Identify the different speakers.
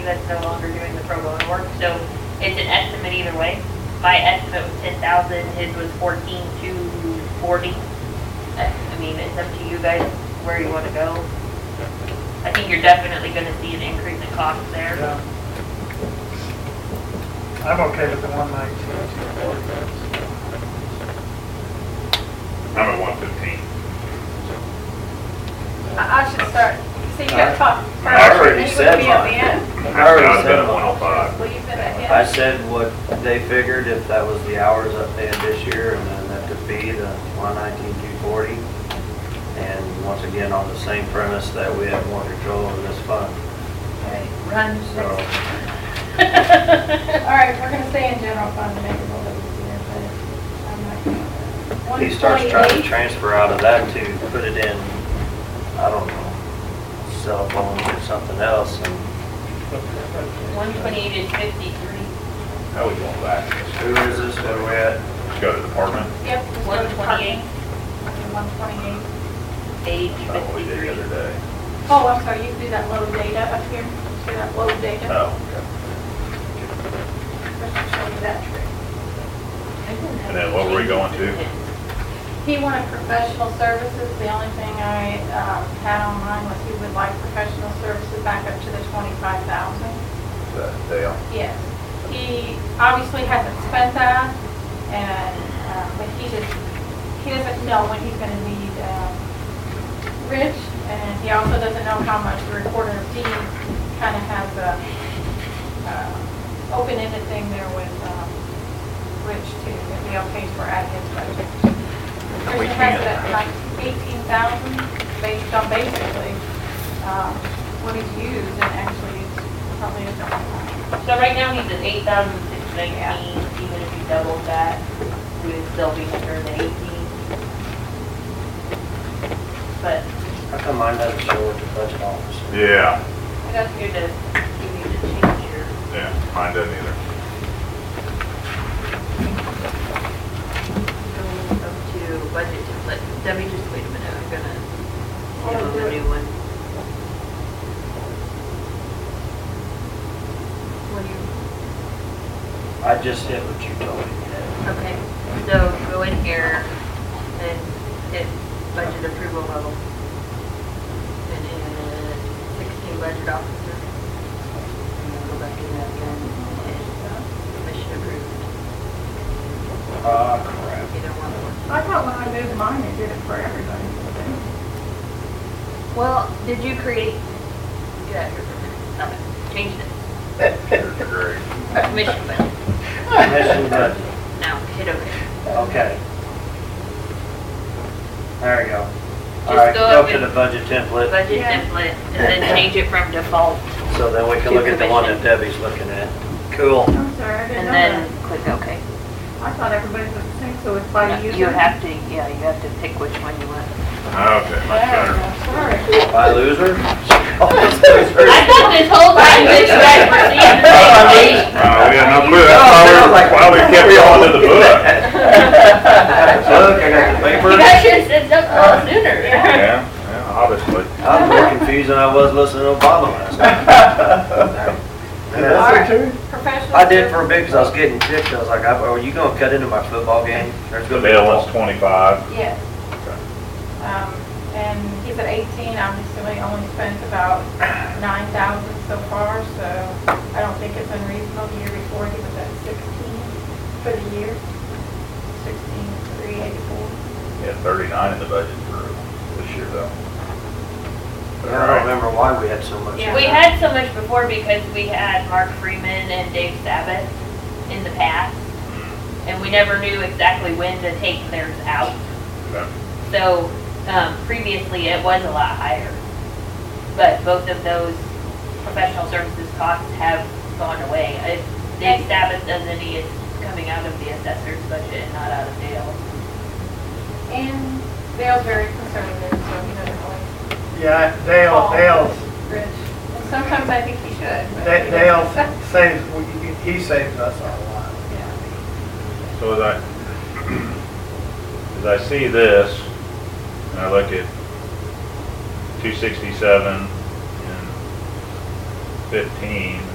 Speaker 1: that's no longer doing the pro bono work, so it's an estimate either way. My estimate was ten thousand, his was fourteen to forty. I I mean, it's up to you guys where you wanna go. I think you're definitely gonna see an increase in cost there.
Speaker 2: Yeah. I'm okay with the one nineteen.
Speaker 3: I'm at one fifteen.
Speaker 4: I I should start, see, you got top.
Speaker 3: I
Speaker 5: already said mine. I already
Speaker 3: I've been
Speaker 5: said
Speaker 3: at one oh
Speaker 5: mine.
Speaker 3: five.
Speaker 4: Well, you've been at
Speaker 5: I said what they figured, if that was the hours up they had this year, and then that could be the one nineteen, two forty. And once again, on the same premise that we have more control over this fund,
Speaker 1: Run.
Speaker 5: so.
Speaker 4: All right, we're gonna stay in general fund to make it a little easier, but I'm not gonna.
Speaker 5: He starts trying to
Speaker 4: 128.
Speaker 5: transfer out of that to put it in, I don't know, cell phones or something else, and
Speaker 1: One twenty-eight is fifty-three,
Speaker 3: How we going back?
Speaker 5: who is this, what are we at?
Speaker 3: Go to department.
Speaker 4: Yep. just go
Speaker 1: one
Speaker 4: to
Speaker 1: twenty-eight,
Speaker 4: parking, 128.
Speaker 1: page
Speaker 3: That's not what we did
Speaker 1: fifty-three.
Speaker 3: the other day.
Speaker 4: Oh, I'm sorry, you can do that low data up here, see that low
Speaker 5: Uh.
Speaker 4: data?
Speaker 3: Oh.
Speaker 4: Chris will show you that trick.
Speaker 3: And then what were we going to?
Speaker 4: He wanted professional services, the only thing I um, had on mine was he would like professional services back up to the 25,000.
Speaker 3: That Dale.
Speaker 4: Yes. He obviously hasn't spent that, and, um, but he just, he doesn't know when he's gonna need um, Rich, and he also doesn't know how much the recorder of deeds kind of has a uh, open-ended thing there with um, Rich too, if the okay for at his budget.
Speaker 5: We
Speaker 4: Rich has
Speaker 5: can't.
Speaker 4: it at like 18,000 based on basically um, what he's used, and actually it's probably a lot.
Speaker 1: So right now, he's at eight thousand six nineteen, even if you doubled that, we would still be under the eighteen. But
Speaker 5: How come mine doesn't show what the budget officer?
Speaker 3: Yeah,
Speaker 1: I got here to give you the change here.
Speaker 3: yeah, mine doesn't either.
Speaker 1: Going up to budget template, Debbie, just wait a minute, I'm gonna
Speaker 4: Hold on,
Speaker 1: give him a
Speaker 4: do it.
Speaker 1: new one. What do you?
Speaker 5: I just did what you told me. to
Speaker 1: Okay, so go in here and hit budget approval level. And then sixteen budget officer. And then go back in that again and hit uh, commission approved,
Speaker 5: do. Ah, crap.
Speaker 1: either one of them.
Speaker 4: I thought when I moved mine, it did it for everybody.
Speaker 1: Well, did you create? Get out of here for a minute. Stop it. Change this.
Speaker 3: Yours are great.
Speaker 1: Commission budget.
Speaker 5: Commission budget,
Speaker 1: Now, hit okay.
Speaker 5: okay. There we go. All
Speaker 1: Just
Speaker 5: right,
Speaker 1: go
Speaker 5: go
Speaker 1: up
Speaker 5: to
Speaker 1: and-
Speaker 5: the budget template,
Speaker 1: Budget
Speaker 4: Yeah.
Speaker 1: template and then change it from default
Speaker 5: so then we
Speaker 1: to
Speaker 5: can look at the one that
Speaker 1: commission.
Speaker 5: Debbie's looking at. Cool.
Speaker 4: I'm sorry, I didn't
Speaker 1: and
Speaker 4: know
Speaker 1: then
Speaker 4: that.
Speaker 1: click okay.
Speaker 4: I thought everybody was the same, so it's by user.
Speaker 1: You have to, yeah, you have to pick which one you want.
Speaker 3: Okay, much better.
Speaker 4: Yeah, sorry.
Speaker 5: By loser? Oh, Always loser.
Speaker 1: I thought this whole time that you guys were seeing the same thing.
Speaker 3: Uh, we had no clue, that's why we, why we kept going to the book.
Speaker 5: Look, I got the
Speaker 1: You guys
Speaker 5: paper.
Speaker 1: should have said something a little sooner.
Speaker 3: Yeah, yeah, obviously.
Speaker 5: I'm more confused than I was listening to Obama last night.
Speaker 4: All right. Professional.
Speaker 5: I did
Speaker 4: service.
Speaker 5: for a bit 'cause I was getting ticked. I was like, "Oh, are you gonna cut into my football game? There's
Speaker 3: The
Speaker 5: gonna be a
Speaker 3: bail was
Speaker 5: ball.
Speaker 3: twenty-five.
Speaker 4: Yes. Um, and he's at eighteen, obviously we only spent about nine thousand so far, so I don't think it's unreasonable. The year before, he was at sixteen for the year, sixteen, three eighty-four.
Speaker 3: We had thirty-nine in the budget for this year though.
Speaker 5: I don't remember why we had so much.
Speaker 4: Yeah.
Speaker 1: We had so much before because we had Mark Freeman and Dave Sabbath in the past, and we never knew exactly when to take theirs out.
Speaker 3: Okay.
Speaker 1: So, um, previously, it was a lot higher. But both of those professional services costs have gone away. If Dave Sabbath does any, it's coming out of the assessor's budget and not out of Dale's.
Speaker 4: And Dale's very conservative, so he doesn't always
Speaker 2: Yeah, Dale, Dale's,
Speaker 4: rich. And sometimes I think he should. but
Speaker 2: Da-
Speaker 4: he doesn't.
Speaker 2: Dale saves, we- he saves us a lot.
Speaker 4: Yeah.
Speaker 3: So as I, as I see this, and I look at two sixty-seven and fifteen,